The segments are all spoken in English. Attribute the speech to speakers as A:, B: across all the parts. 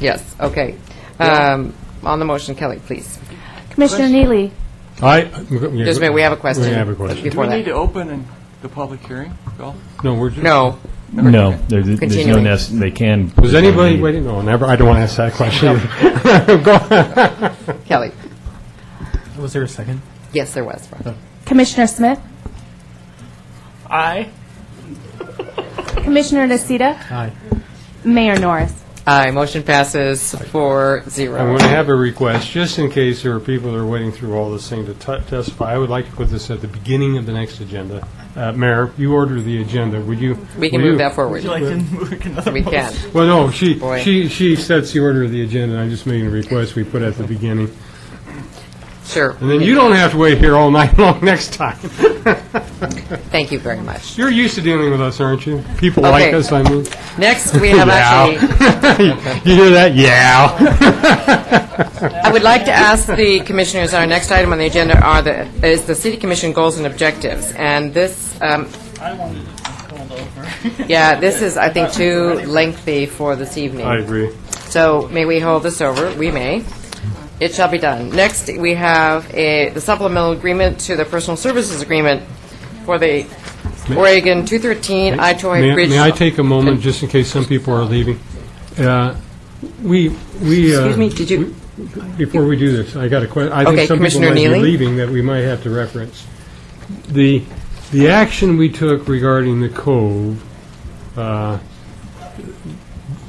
A: Yes, okay. Um, On the motion, Kelly, please.
B: Commissioner Neely,
C: I.
A: Just a minute, we have a question.
C: We have a question.
A: Before
D: Do we need to
A: that.
D: open and- the public hearing, Bill?
C: No, we're just.
A: No.
E: No, there's there's no
A: Continuing.
E: nec, they can.
C: Was anybody waiting? No, never, I don't want to ask that question.
A: Kelly.
F: Was there a second?
A: Yes, there was. Rob.
B: Commissioner Smith,
F: Aye.
B: Commissioner Nocita,
F: Aye.
B: Mayor Norris.
A: Aye, motion passes four
C: I'm
A: zero.
C: going to have a request, just in case there are people that are waiting through all this thing to tu- testify. I would like to put this at the beginning of the next agenda. Uh, Mayor, you order the agenda, would you?
A: We can
C: will you-
A: move that forward.
F: like to move another
A: We can.
C: Well, no, she,
A: Boy.
C: she, she sets the order of the agenda, and I'm just making a request we put at the beginning.
A: Sure.
C: And then you don't have to wait here all night long next time.
A: Thank you very much.
C: You're used to dealing with us, aren't you? People like
A: Okay.
C: us, I mean.
A: Next, we have actually,
C: You hear that? Yeah.
A: I would like to ask the commissioners, our next item on the agenda are the, is the city commission goals and objectives. And this, um, yeah, this is, I think, too lengthy for this evening.
C: I agree.
A: So may we hold this over? We may. It shall be done. Next, we have a, the supplemental agreement to the personal services agreement for the Oregon 213
C: May-
A: Itoy Bridge.
C: May I take uh, a moment, just in case some people are leaving? Uh, We, we... uh,
A: Excuse me, did you-
C: we- Before we do this, I got a question. I
A: Okay,
C: think some people
A: Commissioner
C: might be
A: Neely?
C: leaving that we might have to reference. The, the action we took regarding the cove, uh,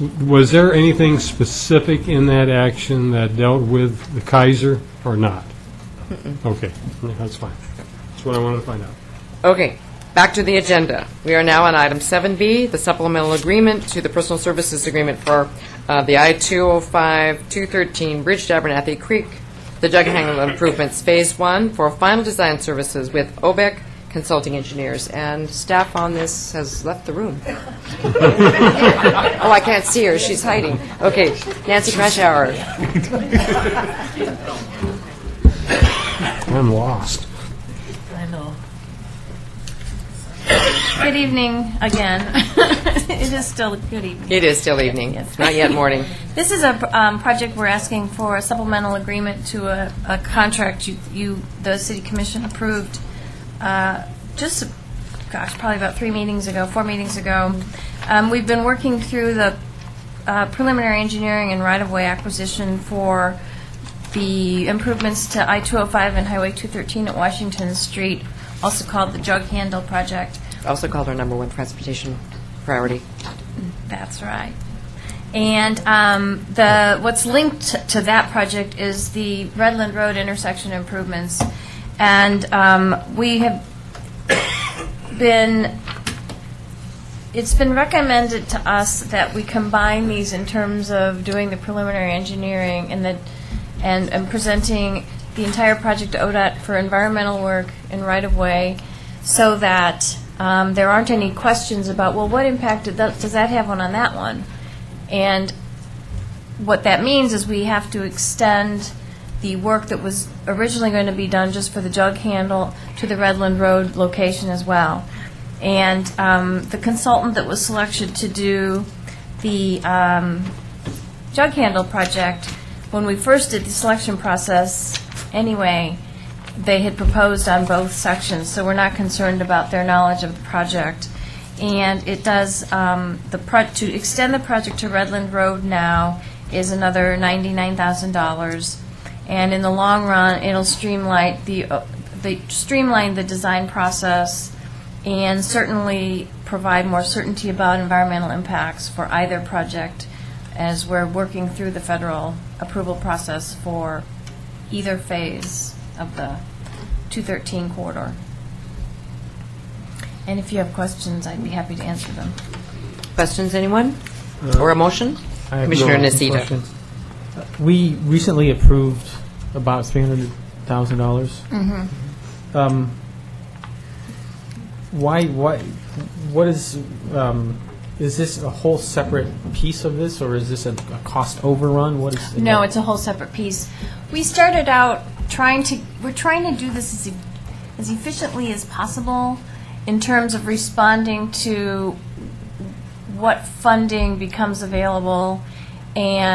C: w- was there anything specific in that action that dealt with the Kaiser or not? Okay, that's fine. That's what I wanted to find out.
A: Okay, back to the agenda. We are now on item 7B, the supplemental agreement to the personal services agreement for uh, the I-205, 213 Bridge to Abernathy Creek, the Jug Handle Improvements Phase 1 for final design services with OBEC Consulting Engineers. And staff on this has left the room. Oh, I can't see her, she's hiding. Okay, Nancy Crashauer.
C: I'm lost.
G: Good evening again. It is still good evening.
A: It is still evening, It's not yet morning.
G: This is a um, project we're asking for a supplemental agreement to a a contract you- you, the city commission approved uh, just, gosh, probably about three meetings ago, four meetings ago. Um, We've been working through the uh, preliminary engineering and right-of-way acquisition for the improvements to I-205 and Highway 213 at Washington Street, also called the Jug Handle Project.
A: Also called our number one transportation priority.
G: That's right. And um, the, what's linked to that project is the Redland Road intersection improvements. And um, we have been, it's been recommended to us that we combine these in terms of doing the preliminary engineering and the, and and presenting the entire project to ODOT for environmental work and right-of-way, so that um, there aren't any questions about, well, what impact did that- does that have on, on that one? And what that means is we have to extend the work that was originally going to be done just for the jug handle to the Redland Road location as well. And um, the consultant that was selected to do the um, jug handle project, when we first did the selection process, anyway, they had proposed on both sections, so we're not concerned about their knowledge of the project. And it does, um, the, pro- to extend the project to Redland Road now is another $99,000. And in the long run, it'll streamline the, uh, the- streamline the design process and certainly provide more certainty about environmental impacts for either project as we're working through the federal approval process for either phase of the 213 corridor. And if you have questions, I'd be happy to answer them.
A: Questions, anyone? Or a motion?
F: Uh, I have
A: Commissioner
F: no
A: Nocita.
F: questions. Uh, We recently approved about three hundred thousand dollars.
A: Mm-hmm.
F: Um, why, why, what is, um, is this a whole separate piece of this, or is this a, a cost overrun? What is?
G: No, it's a whole separate piece. We started out trying to, we're trying to do this as, e- as efficiently as possible in terms of responding to what funding becomes available and